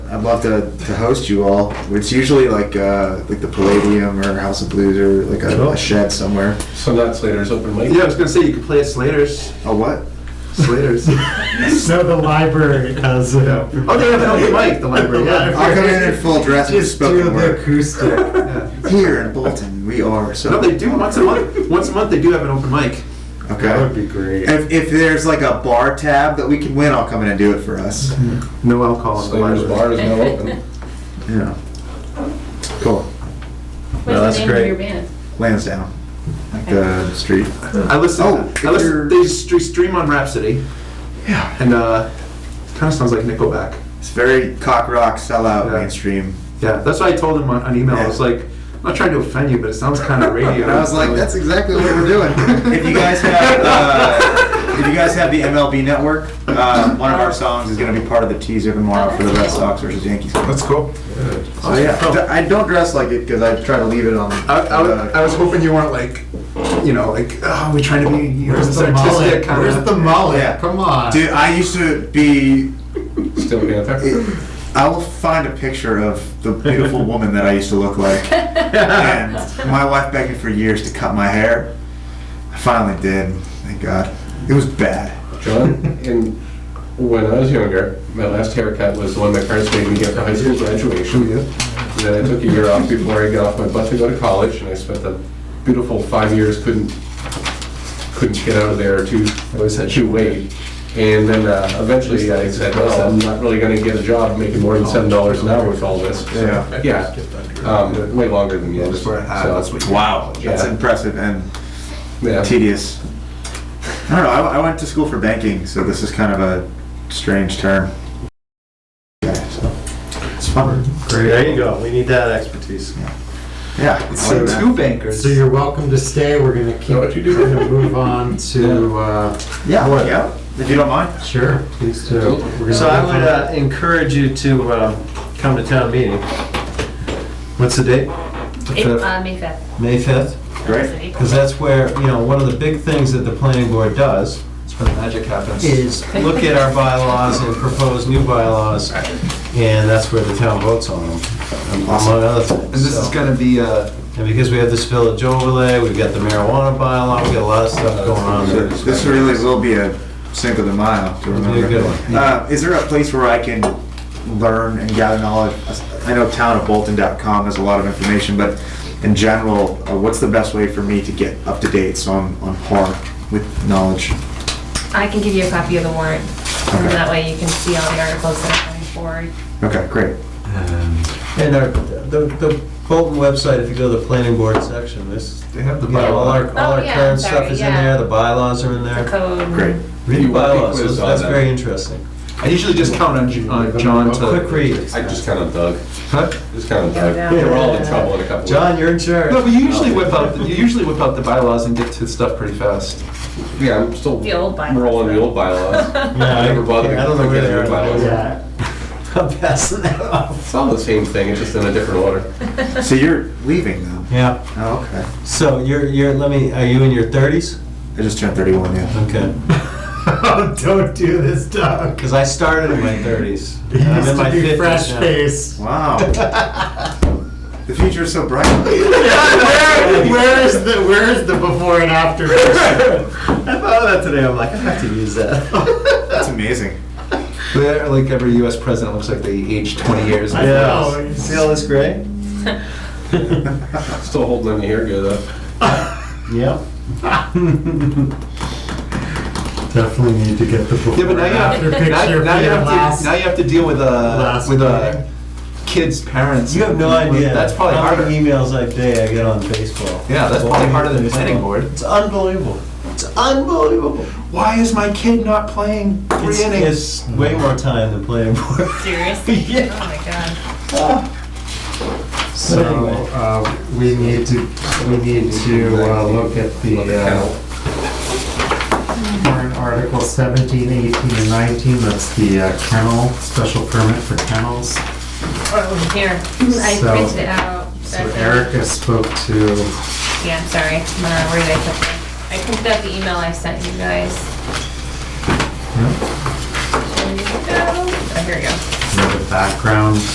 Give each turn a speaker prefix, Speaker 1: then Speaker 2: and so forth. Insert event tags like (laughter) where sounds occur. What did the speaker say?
Speaker 1: I'd love to, to host you all. It's usually like uh, like the Palladium or House of Blues or like a,
Speaker 2: Cool.
Speaker 1: a shed somewhere.
Speaker 3: So that's later's open mic.
Speaker 4: Yeah, I was gonna say you could play at Slater's.
Speaker 1: A what? (laughs) Slater's.
Speaker 2: So the library has a.
Speaker 4: Oh, they have an open mic, the
Speaker 1: (laughs)
Speaker 4: library.
Speaker 2: The
Speaker 4: Yeah.
Speaker 1: I'll come in in full dress with
Speaker 2: Just do
Speaker 1: spoken
Speaker 2: the
Speaker 1: word.
Speaker 4: (laughs)
Speaker 2: acoustic.
Speaker 4: yeah.
Speaker 1: Here in Bolton, we are. So
Speaker 4: No, they do once a month. Once a month, they do have an open mic.
Speaker 2: That would
Speaker 1: Okay.
Speaker 2: be great.
Speaker 1: If, if there's like a bar tab that we can win, I'll come in and do it for us.
Speaker 2: Mm-hmm.
Speaker 4: No alcohol in the
Speaker 3: Slater's
Speaker 4: library.
Speaker 3: bar is now
Speaker 5: (laughs)
Speaker 3: open.
Speaker 1: Yeah. Cool. No,
Speaker 5: What's
Speaker 1: that's
Speaker 5: the name of your
Speaker 1: great.
Speaker 5: band?
Speaker 1: Lansdowne, like the street.
Speaker 4: I listen.
Speaker 1: Oh, if
Speaker 4: I listen.
Speaker 1: you're-
Speaker 4: They stre- stream on Rhapsody,
Speaker 1: Yeah.
Speaker 4: and uh, kind of sounds like Nickelback.
Speaker 1: It's very cock rock, sellout,
Speaker 4: Yeah.
Speaker 1: mainstream.
Speaker 4: Yeah, that's what I told him on, on email. I was
Speaker 1: Yeah.
Speaker 4: like, I'm not trying to offend you, but it sounds
Speaker 1: (laughs)
Speaker 4: kind of radio.
Speaker 1: And I was like, that's exactly what we're doing. (laughs) if you guys have, uh, if you guys have the MLB Network, uh, one of our songs is going to be part of the teaser tomorrow for the Red Sox versus Yankees. game.
Speaker 3: That's cool.
Speaker 1: So Oh, yeah, I don't dress like it because I try to leave it on.
Speaker 4: Oh. I, I, was- I was hoping you weren't like, you know, like, oh, we're trying to be you know,
Speaker 2: Where's
Speaker 4: this
Speaker 2: the mullet?
Speaker 4: artistic kind
Speaker 2: Where's
Speaker 4: of.
Speaker 2: the mullet?
Speaker 1: Yeah.
Speaker 2: Come on.
Speaker 1: Dude, I used to be.
Speaker 3: Still Panther.
Speaker 1: I will find a picture of the
Speaker 4: (laughs)
Speaker 1: beautiful woman that I used to look like. and my wife begged me for years to cut my hair. I finally did. Thank God. It was bad.
Speaker 3: John, and when I was younger, my last haircut was the one my parents made me get for high school graduation.
Speaker 4: Oh,
Speaker 3: And Then I took a year off before I got off my butt to go to college, and I spent the beautiful five years couldn't couldn't get out of there too too late. And then uh, eventually I said, well, I'm not really going to get a job making more than seven dollars an hour with all this.
Speaker 1: Yeah.
Speaker 3: Yeah, um, way longer than you.
Speaker 4: That's where I had- that's what you-
Speaker 1: Wow. That's
Speaker 3: Yeah.
Speaker 1: impressive and
Speaker 3: Yeah.
Speaker 1: tedious. I don't know. I, I went to school for banking, so this is kind of a strange term. Yeah, so it's fun.
Speaker 6: Great. There you go. We need that expertise.
Speaker 1: Yeah. I
Speaker 4: So
Speaker 1: like that.
Speaker 4: two bankers.
Speaker 2: So you're welcome to stay. We're gonna keep.
Speaker 3: Know what you do.
Speaker 2: We're gonna move on to. Uh,
Speaker 1: Yeah.
Speaker 2: What?
Speaker 1: Yeah. If you don't mind.
Speaker 2: sure, please do. We're gonna
Speaker 6: So I
Speaker 2: move on.
Speaker 6: would uh, encourage you to um, come to town meeting. What's the date?
Speaker 5: April, uh, May 5th.
Speaker 6: May 5th?
Speaker 1: Great.
Speaker 6: Because that's where, you know, one of the big things that the planning board does, that's where the magic happens, is look at our bylaws and propose new bylaws, and that's where the town votes on them, among other things.
Speaker 4: and this is
Speaker 6: so.
Speaker 4: gonna be uh,
Speaker 6: And because we have this village overlay, we've got the marijuana bylaw, we've got a lot of stuff going on
Speaker 1: So
Speaker 6: there.
Speaker 1: This really will be a Cinco de Mayo to
Speaker 6: be a
Speaker 1: remember.
Speaker 6: good one.
Speaker 1: Uh, is there a place where I can learn and gather knowledge? I know townofbolton.com has a lot of information, but in general, uh, what's the best way for me to get up to date so I'm on par with knowledge?
Speaker 5: I can give you a copy of the warrant, and
Speaker 1: Okay.
Speaker 5: that way you can see all the articles that are coming forward.
Speaker 1: Okay, great.
Speaker 6: And our, the, the Bolton website, if you go to the planning board section, this,
Speaker 4: they have the
Speaker 6: you know, all our, all our
Speaker 5: Oh, yeah,
Speaker 6: current
Speaker 5: sorry,
Speaker 6: stuff is in
Speaker 5: yeah.
Speaker 6: there, the bylaws are in
Speaker 5: The
Speaker 6: there.
Speaker 5: code.
Speaker 1: Great.
Speaker 6: Read the
Speaker 3: You want to
Speaker 6: bylaws,
Speaker 3: quiz
Speaker 6: that's
Speaker 3: on
Speaker 6: that's
Speaker 3: that?
Speaker 6: very interesting.
Speaker 4: I usually just count on, Ju- on John to.
Speaker 6: Quick read.
Speaker 3: I just kind of dug.
Speaker 4: Huh?
Speaker 3: Just kind of
Speaker 5: Go
Speaker 3: dug.
Speaker 5: down.
Speaker 3: We're all in trouble in a couple of
Speaker 6: John, you're in charge.
Speaker 4: No, but you usually whip out you usually whip out the bylaws and get to stuff pretty fast.
Speaker 3: Yeah, I'm still
Speaker 5: The old bylaws,
Speaker 3: rolling the
Speaker 5: though.
Speaker 3: old bylaws.
Speaker 6: Yeah,
Speaker 3: I never bothered
Speaker 6: I don't know
Speaker 3: to
Speaker 6: where
Speaker 3: get
Speaker 6: they
Speaker 3: your
Speaker 6: are.
Speaker 3: bylaws.
Speaker 6: Yeah. (laughs) I'm passing that off.
Speaker 3: It's all the same thing, it's just in a different order.
Speaker 1: So you're leaving now?
Speaker 6: Yeah,
Speaker 1: Oh, okay.
Speaker 6: so you're, you're, let me, are you in your thirties?
Speaker 1: I just turned 31, yeah.
Speaker 6: Okay,
Speaker 2: (laughs) oh, don't do this, Doug.
Speaker 6: because I started in my thirties.
Speaker 2: (laughs) He
Speaker 6: I'm
Speaker 2: used
Speaker 6: in
Speaker 2: to
Speaker 6: my
Speaker 2: be
Speaker 6: 50s
Speaker 2: fresh
Speaker 4: (laughs)
Speaker 6: now.
Speaker 2: face.
Speaker 1: Wow. The future is so bright.
Speaker 2: where, where is the where is the before
Speaker 4: (laughs)
Speaker 2: and after?
Speaker 6: I thought of that today, I'm like, I have to use that. (laughs)
Speaker 1: That's amazing.
Speaker 4: They're like every U.S. president looks like they aged 20 years.
Speaker 2: I know.
Speaker 6: Yeah, see all this gray?
Speaker 3: Still holding on to hair good though.
Speaker 6: Yeah.
Speaker 2: Definitely need to get the before
Speaker 4: Yeah, but now you
Speaker 2: and
Speaker 4: have,
Speaker 2: after
Speaker 4: now,
Speaker 2: picture
Speaker 4: you-
Speaker 2: for
Speaker 4: now you
Speaker 2: your
Speaker 4: have
Speaker 2: last-
Speaker 4: to, now you have to deal with uh
Speaker 2: last
Speaker 4: with uh
Speaker 2: meeting.
Speaker 4: kids' parents.
Speaker 6: You have no idea.
Speaker 4: That's probably
Speaker 6: how
Speaker 4: harder.
Speaker 6: many emails I day I get on baseball.
Speaker 4: Yeah, that's probably harder than planning
Speaker 6: Baseball.
Speaker 4: board.
Speaker 6: It's unbelievable. It's unbelievable.
Speaker 4: Why is my kid not playing
Speaker 6: It's,
Speaker 4: three innings?
Speaker 6: it's way more time than planning board.
Speaker 5: (laughs)
Speaker 1: (laughs)
Speaker 5: Seriously?
Speaker 6: Yeah.
Speaker 5: Oh, my God.
Speaker 2: So uh, we need to we need to uh, look at the uh, warrant article 17, 18, and 19. That's the uh, kennel special permit for kennels.
Speaker 5: Oh, Here, I
Speaker 2: So-
Speaker 5: printed it out.
Speaker 2: So
Speaker 5: That's it.
Speaker 2: Erica spoke to
Speaker 5: Yeah, I'm sorry. Uh, Where did I put that? I printed out the email I sent you guys. There you go.
Speaker 7: here you go.
Speaker 5: you know, the background